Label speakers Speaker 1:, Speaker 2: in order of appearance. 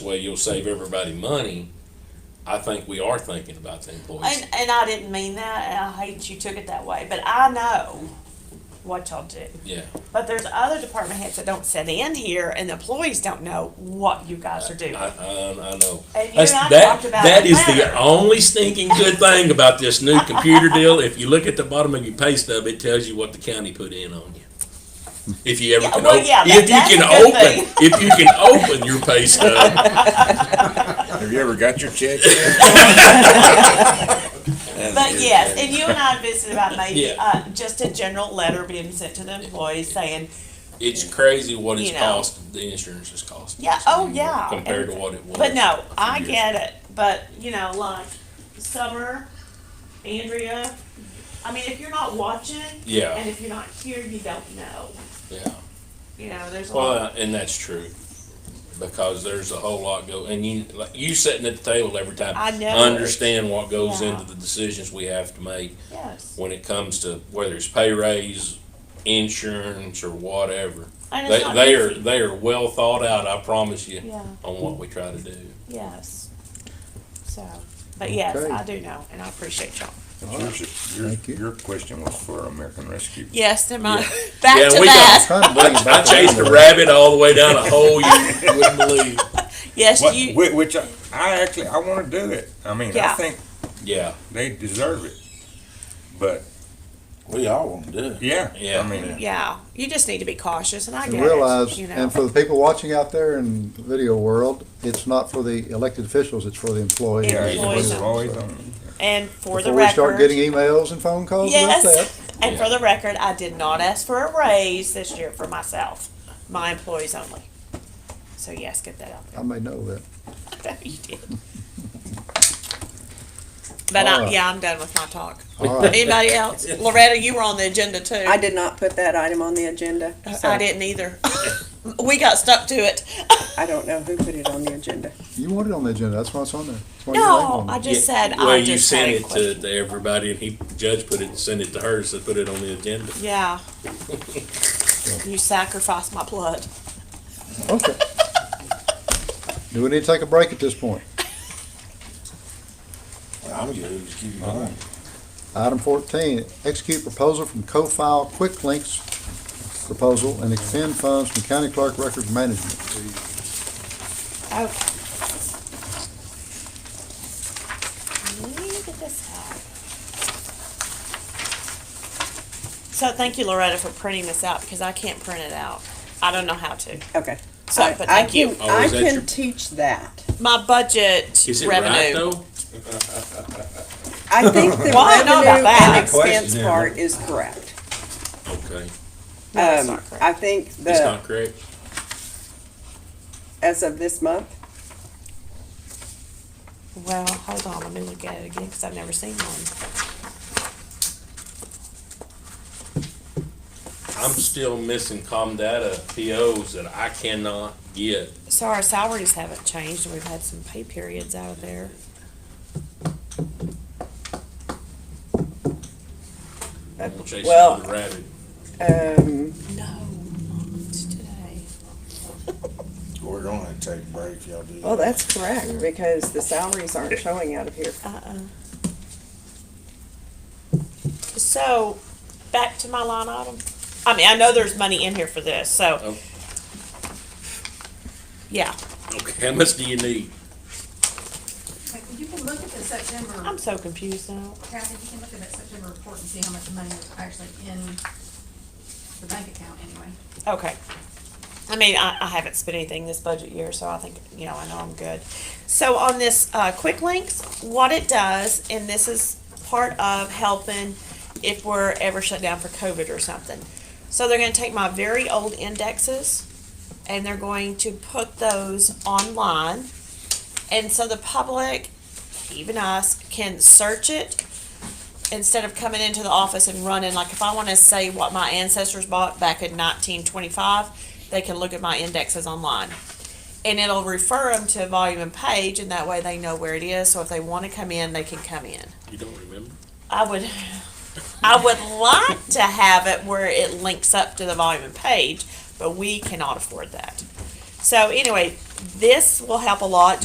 Speaker 1: well, you'll save everybody money, I think we are thinking about the employees.
Speaker 2: And, and I didn't mean that, and I hate you took it that way, but I know what y'all do.
Speaker 1: Yeah,
Speaker 2: But there's other department heads that don't sit in here, and the employees don't know what you guys are doing.
Speaker 1: I, I, I know.
Speaker 2: And you
Speaker 1: That's-
Speaker 2: and I
Speaker 1: that-
Speaker 2: talked about
Speaker 1: That
Speaker 2: it
Speaker 1: is the
Speaker 2: later.
Speaker 1: only stinking good thing about this new computer deal. If you look at the bottom of your pay stub, it tells you what the county put in on you. If you ever
Speaker 2: Yeah,
Speaker 1: can,
Speaker 2: well,
Speaker 1: op-
Speaker 2: yeah,
Speaker 1: if you
Speaker 2: that-
Speaker 1: can
Speaker 2: that's a good
Speaker 1: open, if you can open your pay stub,
Speaker 3: Have you ever got your check?
Speaker 2: But yes, and you and I visited about maybe,
Speaker 1: Yeah.
Speaker 2: uh, just a general letter being sent to the employees saying,
Speaker 1: it's crazy what it's
Speaker 2: You know.
Speaker 1: cost, the insurance is costing.
Speaker 2: yeah, oh, yeah.
Speaker 1: Compared to
Speaker 2: and-
Speaker 1: what it was.
Speaker 2: But no, I
Speaker 1: years.
Speaker 2: get it, but, you know, like, Summer, Andrea, I mean, if you're not watching,
Speaker 1: Yeah.
Speaker 2: and if you're not here, you don't know,
Speaker 1: Yeah.
Speaker 2: you know, there's a lot.
Speaker 1: Well, and that's true, because there's a whole lot go, and you, like, you sitting at the table every time.
Speaker 2: I know.
Speaker 1: Understand what goes
Speaker 2: Yeah.
Speaker 1: into the decisions we have to make
Speaker 2: Yes.
Speaker 1: when it comes to whether it's pay raise, insurance, or whatever.
Speaker 2: And it's
Speaker 1: They,
Speaker 2: not
Speaker 1: they
Speaker 2: easy.
Speaker 1: are, they are well thought out, I promise you,
Speaker 2: Yeah.
Speaker 1: on what we try to do.
Speaker 2: Yes. So, but yes,
Speaker 4: Okay.
Speaker 2: I do know, and I appreciate y'all.
Speaker 3: Yours-
Speaker 4: Thank you.
Speaker 3: Your, your question was for American Rescue.
Speaker 2: Yes, they're mine.
Speaker 1: Yeah, we got-
Speaker 4: Trying to bring it
Speaker 1: I
Speaker 4: back
Speaker 1: chased a
Speaker 4: around.
Speaker 1: rabbit all the way down a hole you wouldn't believe.
Speaker 2: Yes,
Speaker 3: What, whi- which I, I actually, I wanna do it. I mean, I
Speaker 2: Yeah.
Speaker 3: think
Speaker 1: Yeah,
Speaker 3: they deserve it. But,
Speaker 5: We all want to do it.
Speaker 3: yeah,
Speaker 1: Yeah.
Speaker 3: I mean,
Speaker 2: yeah, you just need to be cautious, and I
Speaker 4: And
Speaker 2: get
Speaker 4: realize,
Speaker 2: it. You know,
Speaker 4: and for the people watching out there in the video world, it's not for the elected officials, it's for the employees.
Speaker 3: yeah,
Speaker 2: And
Speaker 3: it
Speaker 2: employees
Speaker 3: was
Speaker 2: are-
Speaker 3: always on.
Speaker 2: and for
Speaker 4: Before
Speaker 2: the
Speaker 4: we
Speaker 2: record,
Speaker 4: start getting emails and phone calls about that.
Speaker 2: yes, and for the record, I did not ask for a raise this year for myself, my employees only. So yes, get that out
Speaker 4: I may know that.
Speaker 2: there. you did. But I,
Speaker 4: Alright.
Speaker 2: yeah, I'm done with my talk.
Speaker 4: All right.
Speaker 2: Anybody else? Loretta, you were on the agenda too.
Speaker 6: I did not put that item on the agenda. so
Speaker 2: I didn't either. we got stuck to it.
Speaker 6: I don't know who put it on the agenda.
Speaker 4: You want it on the agenda, that's why it's on there. That's why you
Speaker 2: No,
Speaker 4: named
Speaker 2: I
Speaker 4: it.
Speaker 2: just
Speaker 1: Yeah.
Speaker 2: said
Speaker 1: Well,
Speaker 2: I
Speaker 1: you
Speaker 2: just had
Speaker 1: sent
Speaker 2: a
Speaker 1: it to,
Speaker 2: question.
Speaker 1: to everybody, and he, Judge put it, sent it to her, so put it on the agenda.
Speaker 2: Yeah. you sacrificed my blood.
Speaker 4: Okay. Do we need to take a break at this point?
Speaker 5: I'm good. Just keep mine.
Speaker 4: Item fourteen, execute proposal from co-file Quick Links proposal and expend funds from county clerk record management.
Speaker 2: Okay. Let me get this out. So thank you, Loretta, for printing this out because I can't print it out. I don't know how to.
Speaker 6: Okay.
Speaker 2: So,
Speaker 6: I-
Speaker 2: but
Speaker 6: I
Speaker 2: thank you.
Speaker 6: can-
Speaker 1: Oh,
Speaker 6: I
Speaker 1: is that your-
Speaker 6: can teach that.
Speaker 2: My budget
Speaker 1: Is it right,
Speaker 2: revenue.
Speaker 1: though?
Speaker 6: I think the
Speaker 2: Well, I know about
Speaker 6: revenue
Speaker 2: that.
Speaker 6: and expense
Speaker 5: Question there,
Speaker 6: part is correct.
Speaker 1: Okay,
Speaker 2: No, it's
Speaker 6: Um,
Speaker 2: not correct.
Speaker 6: I think
Speaker 1: it's
Speaker 6: the,
Speaker 1: not correct?
Speaker 6: as of this month,
Speaker 2: well, hold on. Let me look at it again because I've never seen one.
Speaker 1: I'm still missing com data POs that I cannot get.
Speaker 2: So our salaries haven't changed, and we've had some pay periods out of there.
Speaker 1: I'm chasing
Speaker 6: Well-
Speaker 1: the rabbit.
Speaker 6: um,
Speaker 2: No, not today.
Speaker 5: We're going to take a break, y'all do.
Speaker 6: well, that's correct because the salaries aren't showing out of here.
Speaker 2: Uh-uh. So, back to my line item. I mean, I know there's money in here for this, so.
Speaker 1: Oh.
Speaker 2: Yeah,
Speaker 1: Okay, how much do you need?
Speaker 7: Like, You can look at the September,
Speaker 2: I'm so confused now.
Speaker 7: Kathy, you can look at that September report and see how much money is actually in the bank account anyway.
Speaker 2: Okay. I mean, I, I haven't spent anything this budget year, so I think, you know, I know I'm good. So on this, uh, quick links, what it does, and this is part of helping if we're ever shut down for COVID or something. So they're gonna take my very old indexes and they're going to put those online. And so the public, even us, can search it instead of coming into the office and running, like if I want to say what my ancestors bought back in nineteen twenty-five, they can look at my indexes online. And it'll refer them to volume and page, and that way they know where it is, so if they want to come in, they can come in.
Speaker 1: You don't remember?
Speaker 2: I would, I would like to have it where it links up to the volume and page, but we cannot afford that. So anyway, this will help a lot